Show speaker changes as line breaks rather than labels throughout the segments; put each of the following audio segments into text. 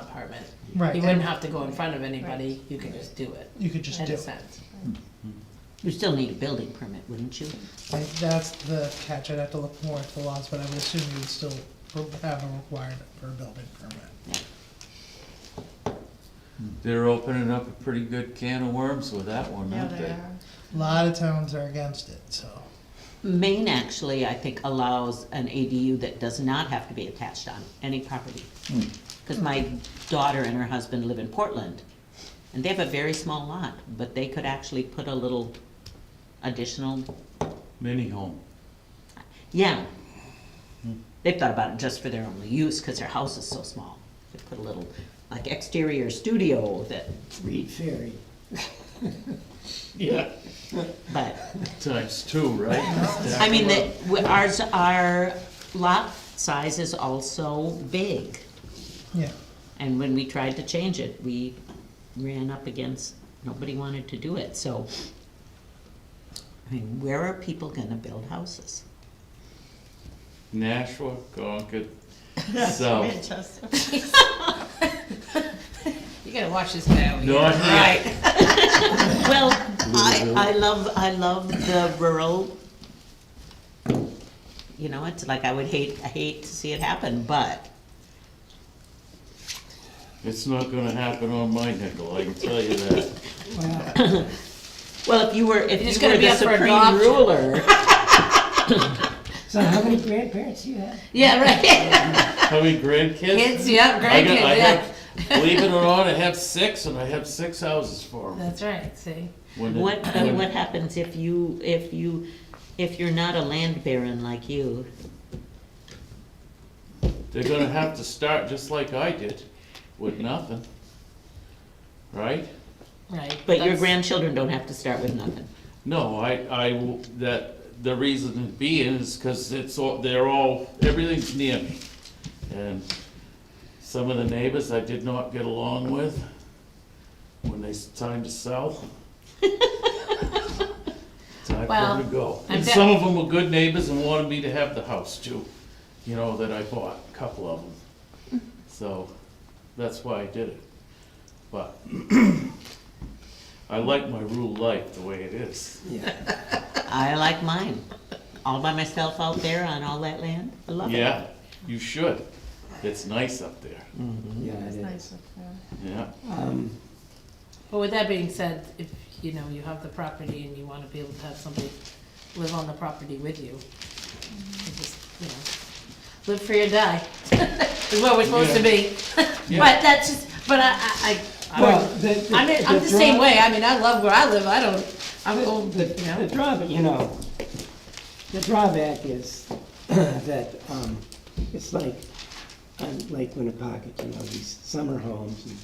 department.
Right.
You wouldn't have to go in front of anybody,
Right.
you could just do it,
You could just
in
do
a
it.
sense.
Mm-hmm. You still need a building permit, wouldn't you?
Like, That's the catch. I'd have to look more into the laws, but I would assume you would still have a requirement for a building permit.
They're opening up a pretty good can of worms with that one,
Yeah,
aren't
they
they?
are.
A lot of towns are against it, so.
Maine actually, I think, allows an ADU that does not have to be attached on any property.
Hmm.
Because my daughter and her husband live in Portland, and they have a very small lot, but they could actually put a little additional,
Mini home.
yeah.
Hmm.
They've thought about it just for their only use, because their house is so small. They put a little, like exterior studio that,
Reed Ferry.
but
Times two, right?
I mean, that, w- ours, our lot size is also big,
Yeah,
and when we tried to change it, we ran up against, nobody wanted to do it, so. I mean, where are people gonna build houses?
Nashua, Concord,
So.
South,
Manchester.
You gotta watch this guy over here.
North,
Right. Well, I, I love, I love the rural. You know, it's like, I would hate, I hate to see it happen, but
it's not gonna happen on my nickel, I can tell you that.
Well, if you were, if
You're just
you were
gonna be
the
up for
supreme
adoption.
ruler.
So how many grandparents do you have?
Yeah, right.
How many grandkids?
Kids, yeah,
I got-
grandkids,
I
yeah.
have- Believe it or not, I have six, and I have six houses for them.
That's right, see?
What, uh, what happens if you, if you, if you're not a land baron like you?
They're gonna have to start just like I did, with nothing. Right?
Right.
But your
that's-
grandchildren don't have to start with nothing.
No, I, I, w- that, the reason being is because it's all, they're all, everything's near me. And some of the neighbors I did not get along with when they, s- time to sell. Time for
Well,
them to go.
I'm
And
de-
some of them were good neighbors and wanted me to have the house too, you know, that I bought, a couple of them. So, that's why I did it. But I like my rural life the way it is.
I like mine, all by myself out there on all that land, I love it.
Yeah, you should. It's nice up there.
Yeah,
It's
it
nice up there.
Yeah.
Um,
But with that being said, if, you know, you have the property and you wanna be able to have somebody live on the property with you, you just, you know, live free or die, is what we're supposed to be. But that's just, but I, I, I, I
Well,
would-
the, the.
I mean, I'm the same
draw-
way, I mean, I love where I live, I don't, I'm old,
The,
you know.
the drawback, you know, the drawback is that, um, it's like, um, on Lake Winnipocket, you know, these summer homes and,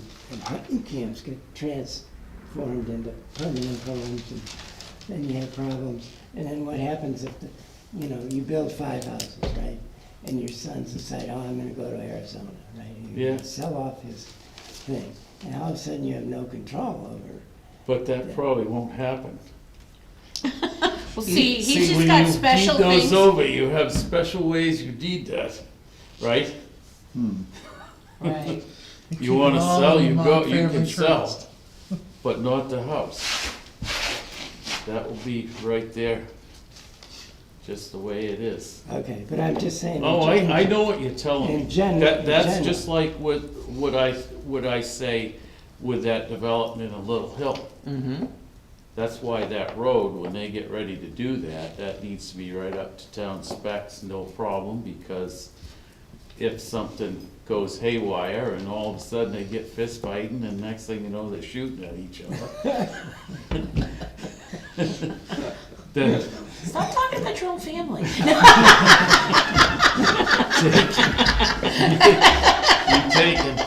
and- and hunting camps get transformed into permanent homes and then you have problems. And then what happens if, the you know, you build five houses, right? And your sons decide, oh, I'm gonna go to Arizona, right? And you
Yeah.
Sell off his thing. And all of a sudden you have no control over
But that probably won't happen.
Well, see, he's just
when
got
you
special
deed
things.
those over, you have special ways you deed that, right?
Right.
You wanna
all
sell,
in
you
my
go, you can
family
sell,
trust.
but not the house. That will be right there, just the way it is.
Okay, but I'm just saying.
Oh, I, I know what you're telling me.
In gen-
That,
in
that's
gen-
just like what, what I, what I say with that development in Little Hill.
Mm-hmm,
That's why that road, when they get ready to do that, that needs to be right up to town specs, no problem, because if something goes haywire and all of a sudden they get fist fighting and next thing you know, they're shooting at each other. Then,
Stop talking about your own family.
you take it,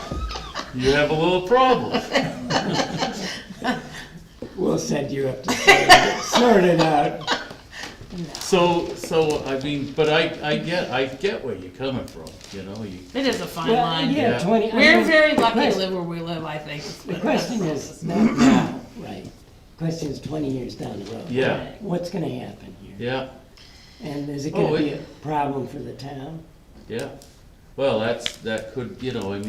you have a little problem.
We'll send you up to sort it- sort it out.
So, so, I mean, but I, I get, I get where you're coming from, you know, you,
It is a fine
Well,
line.
yeah,
Yeah.
twenty. I
We're
mean,
very
the
lucky to
quest-
live where we live, I think. is
The
what-
question is, not now, right? Question is twenty years down the road.
yeah,
What's gonna happen here?
yeah,
And is it
Oh,
gonna be a
it-
problem for the town?
yeah. Well, that's, that could, you know, I mean,